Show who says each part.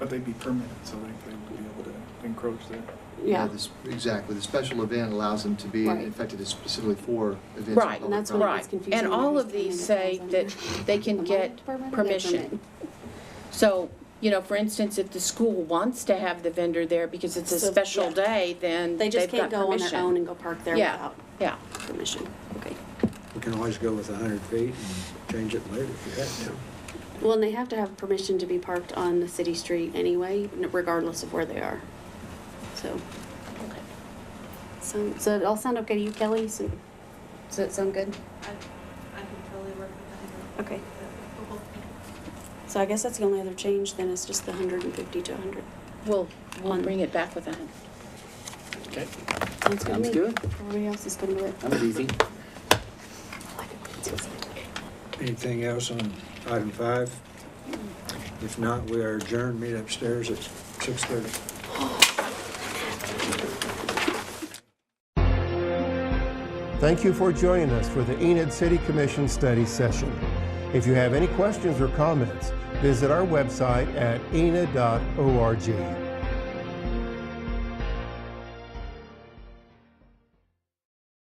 Speaker 1: they'd be permanent, so they, they would be able to encroach there.
Speaker 2: Yeah,
Speaker 3: this- Exactly, the special event allows them to be
Speaker 2: Right.
Speaker 3: affected is specifically for events. of
Speaker 4: Right,
Speaker 2: and that's
Speaker 3: public
Speaker 2: what
Speaker 4: Right,
Speaker 2: it's confusing.
Speaker 4: and all of these say that they
Speaker 2: Uh-huh.
Speaker 4: can get permission. So, you know, for instance, if the school wants to have the vendor there because it's a
Speaker 2: So,
Speaker 4: special
Speaker 2: yeah.
Speaker 4: day, then
Speaker 2: They
Speaker 4: they've got
Speaker 2: just can't
Speaker 4: permission.
Speaker 2: go on their own and go park there
Speaker 4: Yeah.
Speaker 2: without
Speaker 4: Yeah,
Speaker 2: permission. Okay.
Speaker 5: You can always go with 100 feet and change it later if you have to.
Speaker 2: Well, and they have to have permission to be parked on the city street anyway, regardless of where they are. So,
Speaker 4: okay.
Speaker 2: so, so it all sound okay to you, Kelly? So, does that sound good?
Speaker 6: I, I can totally work with that.
Speaker 2: Okay.
Speaker 6: Cool.
Speaker 2: So I guess that's the only other change then is just the hundred and fifty to hundred.
Speaker 4: We'll, we'll
Speaker 2: On-
Speaker 4: bring it back with a hundred.
Speaker 7: Okay,
Speaker 2: Sounds good to
Speaker 7: Sounds
Speaker 2: me.
Speaker 7: good.
Speaker 2: Everybody else is gonna do it.
Speaker 7: that was easy.
Speaker 5: Anything else on item five? If not, we are adjourned, meet upstairs at 6:30.
Speaker 8: Thank you for joining us for the Enid City Commission study session. If you have any questions or comments, visit our website at enid.org.